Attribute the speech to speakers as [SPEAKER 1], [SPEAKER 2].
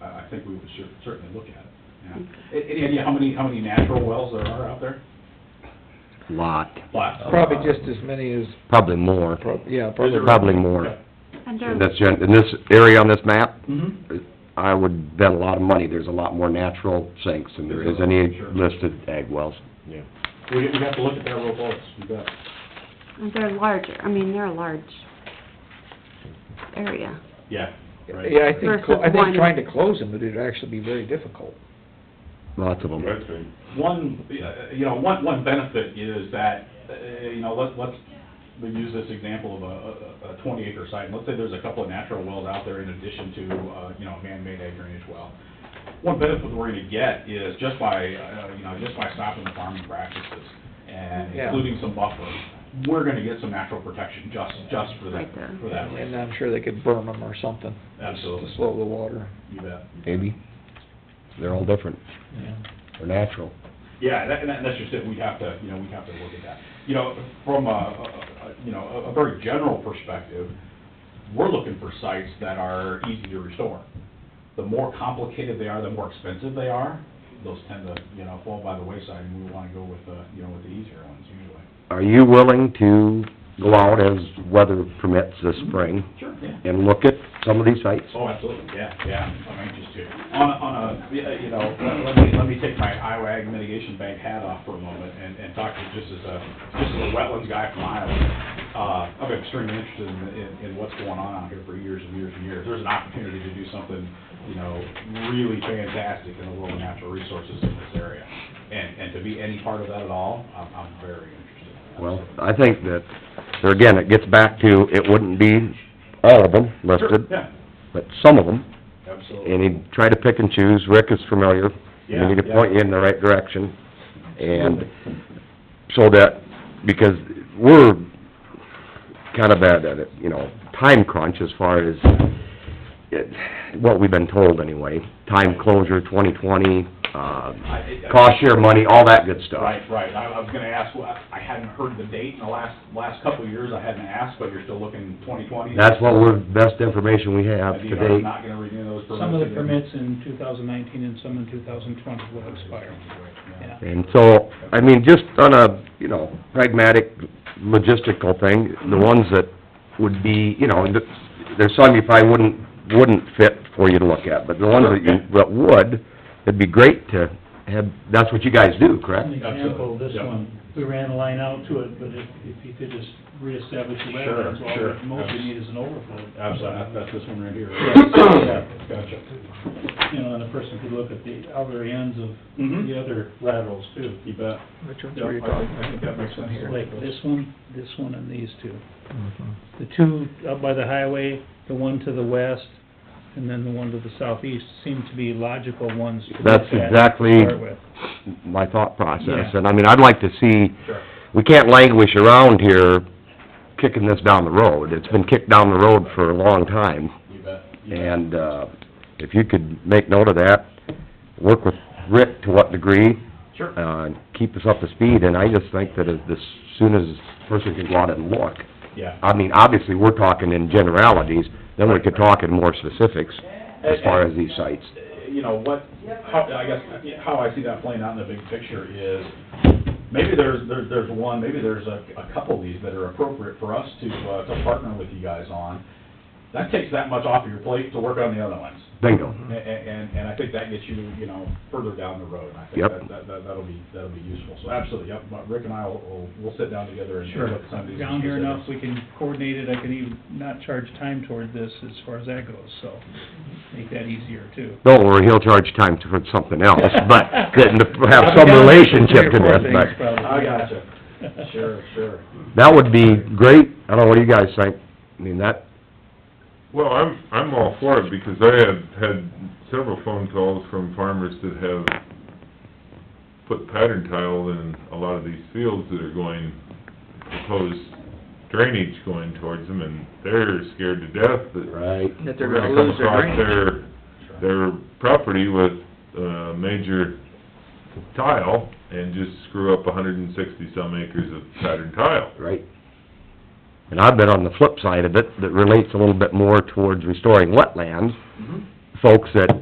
[SPEAKER 1] I think we would cer- certainly look at it, yeah.
[SPEAKER 2] It-
[SPEAKER 1] Any idea how many, how many natural wells there are out there?
[SPEAKER 3] lot,
[SPEAKER 1] Lots.
[SPEAKER 4] Probably just as many as,
[SPEAKER 3] probably more,
[SPEAKER 4] prob- yeah,
[SPEAKER 1] Um, Is there-
[SPEAKER 4] probably.
[SPEAKER 3] probably more.
[SPEAKER 5] And
[SPEAKER 3] And
[SPEAKER 5] they're,
[SPEAKER 3] That's, gen- in this area on this map,
[SPEAKER 1] Mhm.
[SPEAKER 3] I would bet a lot of money, there's a lot more natural sinks than there is any listed ag wells. Yeah.
[SPEAKER 1] We, we have to look at that real close, you bet.
[SPEAKER 5] and they're larger, I mean, they're a large area.
[SPEAKER 1] Yeah, right.
[SPEAKER 4] Yeah, I think, clo- I
[SPEAKER 5] Versus one.
[SPEAKER 4] think trying to close them, it'd actually be very difficult.
[SPEAKER 3] Lots of them.
[SPEAKER 1] One, uh, you know, one, one benefit is that, uh, you know, let's, let's we use this example of a- a, a twenty acre site. Let's say there's a couple of natural wells out there in addition to, uh, you know, a man-made ag drainage well. One benefit we're gonna get is just by, uh, you know, just by stopping the farming practices and
[SPEAKER 4] Yeah.
[SPEAKER 1] including some buffer, we're gonna get some natural protection just, just for that,
[SPEAKER 5] Right there.
[SPEAKER 1] for that
[SPEAKER 4] And
[SPEAKER 1] reason.
[SPEAKER 4] I'm sure they could burn them or something.
[SPEAKER 1] Absolutely.
[SPEAKER 4] To slow the water.
[SPEAKER 1] You bet.
[SPEAKER 3] Maybe. They're all different, they're natural.
[SPEAKER 1] Yeah, that, and that- that's just it, we have to, you know, we have to look at that. You know, from a- a, a- you know, a- a very general perspective, we're looking for sites that are easy to restore. The more complicated they are, the more expensive they are, those tend to, you know, fall by the wayside, and we wanna go with the, you know, with the easier ones usually.
[SPEAKER 3] Are you willing to go out as weather permits this spring
[SPEAKER 1] Sure, yeah.
[SPEAKER 3] and look at some of these sites?
[SPEAKER 1] Oh, absolutely, yeah, yeah, I'm anxious to. On, a- on a, yeah, uh, you know, let let me, let me take my Iowa Ag Mitigation Bank hat off for a moment and, and talk to just as a, just as a wetlands guy from Iowa. Uh, I'm extremely interested in, in, in what's going on out here for years and years and years. There's an opportunity to do something, you know, really fantastic in the world of natural resources in this area. And, and to be any part of that at all, I'm, I'm very interested.
[SPEAKER 3] Well, I think that, so again, it gets back to, it wouldn't be all of them
[SPEAKER 1] Sure,
[SPEAKER 3] listed,
[SPEAKER 1] yeah,
[SPEAKER 3] but some of them,
[SPEAKER 1] absolutely.
[SPEAKER 3] and he'd try to pick and choose, Rick is familiar,
[SPEAKER 1] Yeah,
[SPEAKER 3] and he could
[SPEAKER 1] yeah.
[SPEAKER 3] point you in the right direction, and so that, because we're kind of at a, you know, time crunch as far as, it- what we've been told anyway, time closure, twenty-twenty, uh,
[SPEAKER 1] I- I-
[SPEAKER 3] cost share money, all that good stuff.
[SPEAKER 1] Right, right, I I was gonna ask, well, I I hadn't heard the date in the last, last couple of years, I hadn't asked, but you're still looking twenty twenty?
[SPEAKER 3] That's what we're, best information we have to
[SPEAKER 1] I'm
[SPEAKER 3] date.
[SPEAKER 1] not gonna renew those permits.
[SPEAKER 2] Some of the
[SPEAKER 1] again.
[SPEAKER 2] permits in two thousand nineteen and some in two thousand twenty will expire,
[SPEAKER 1] Yeah.
[SPEAKER 2] yeah.
[SPEAKER 3] And so, I mean, just on a, you know, pragmatic, logistical thing, the ones that would be, you know, that- there's some you probably wouldn't, wouldn't fit for you to look at, but the ones that you, that would, it'd be great to have, that's what you guys do,
[SPEAKER 2] An
[SPEAKER 3] correct?
[SPEAKER 2] example, this
[SPEAKER 1] Yeah.
[SPEAKER 2] one, we ran a line out to it, but if, if you could just reestablish the
[SPEAKER 1] Sure,
[SPEAKER 2] wetlands, all
[SPEAKER 1] sure.
[SPEAKER 2] that most you need is an overflow.
[SPEAKER 1] Absolutely, that's this one right here.
[SPEAKER 2] Yeah.
[SPEAKER 1] Gotcha.
[SPEAKER 2] You know, and a person could look at the other ends of
[SPEAKER 1] Mhm.
[SPEAKER 2] the other laterals too.
[SPEAKER 1] You bet.
[SPEAKER 4] Which ones
[SPEAKER 1] Yeah,
[SPEAKER 4] were you
[SPEAKER 1] I think-
[SPEAKER 4] talking
[SPEAKER 1] I think that
[SPEAKER 4] about?
[SPEAKER 1] makes
[SPEAKER 4] This one
[SPEAKER 1] sense.
[SPEAKER 4] here.
[SPEAKER 2] Like this one, this one, and these two.
[SPEAKER 4] Mhm.
[SPEAKER 2] The two up by the highway, the one to the west, and then the one to the southeast seem to be logical ones to look
[SPEAKER 3] That's
[SPEAKER 2] at to
[SPEAKER 3] exactly-
[SPEAKER 2] start with.
[SPEAKER 3] My thought process,
[SPEAKER 2] Yeah.
[SPEAKER 3] and I mean, I'd like to see,
[SPEAKER 1] Sure.
[SPEAKER 3] we can't languish around here kicking this down the road. It's been kicked down the road for a long time.
[SPEAKER 1] You bet. You bet.
[SPEAKER 3] And, uh, if you could make note of that, work with Rick to what degree,
[SPEAKER 1] Sure.
[SPEAKER 3] uh, and keep us up to speed, and I just think that as, as soon as a person can go out and look,
[SPEAKER 1] Yeah.
[SPEAKER 3] I mean, obviously, we're talking in generalities, then we could talk in more specifics as far as these sites.
[SPEAKER 1] you know, what, how, I guess, how I see that playing out in the big picture is, maybe there's, there's, there's one, maybe there's a, a couple of these that are appropriate for us to, uh, to partner with you guys on. That takes that much off of your plate to work on the other ones.
[SPEAKER 3] Bingo.
[SPEAKER 1] And,
[SPEAKER 2] Mm-hmm.
[SPEAKER 1] and, and I think that gets you, you know, further down the road, and I think
[SPEAKER 3] Yep.
[SPEAKER 1] that, that, that- that'll be, that'll be useful. So absolutely, yep, but Rick and I will- will, we'll sit down together and.
[SPEAKER 2] Sure,
[SPEAKER 1] look at some of these
[SPEAKER 2] down here enough,
[SPEAKER 1] specifics.
[SPEAKER 2] we can coordinate it, I can even not charge time toward this as far as that goes, so make that easier too.
[SPEAKER 3] Don't worry, he'll charge time for something else, but couldn't have some
[SPEAKER 2] I've got
[SPEAKER 3] relationship to
[SPEAKER 2] three or four
[SPEAKER 3] this,
[SPEAKER 2] things
[SPEAKER 3] but
[SPEAKER 2] probably,
[SPEAKER 1] I
[SPEAKER 2] yeah.
[SPEAKER 1] gotcha. Sure, sure.
[SPEAKER 3] that would be great. I don't know, what do you guys think? I mean, that,
[SPEAKER 6] Well, I'm, I'm all for it, because I have had several phone calls from farmers that have put pattern tile in a lot of these fields that are going, proposed drainage going towards them, and they're scared to death that
[SPEAKER 3] right,
[SPEAKER 4] That they're
[SPEAKER 6] we're
[SPEAKER 4] gonna
[SPEAKER 6] come
[SPEAKER 4] lose their
[SPEAKER 6] across
[SPEAKER 4] drainage.
[SPEAKER 6] Their, their property with, uh, major tile, and just screw up hundred and sixty-some acres of pattern tile.
[SPEAKER 3] right? And I've been on the flip side of it, that relates a little bit more towards restoring wetlands,
[SPEAKER 1] Mhm.
[SPEAKER 3] folks that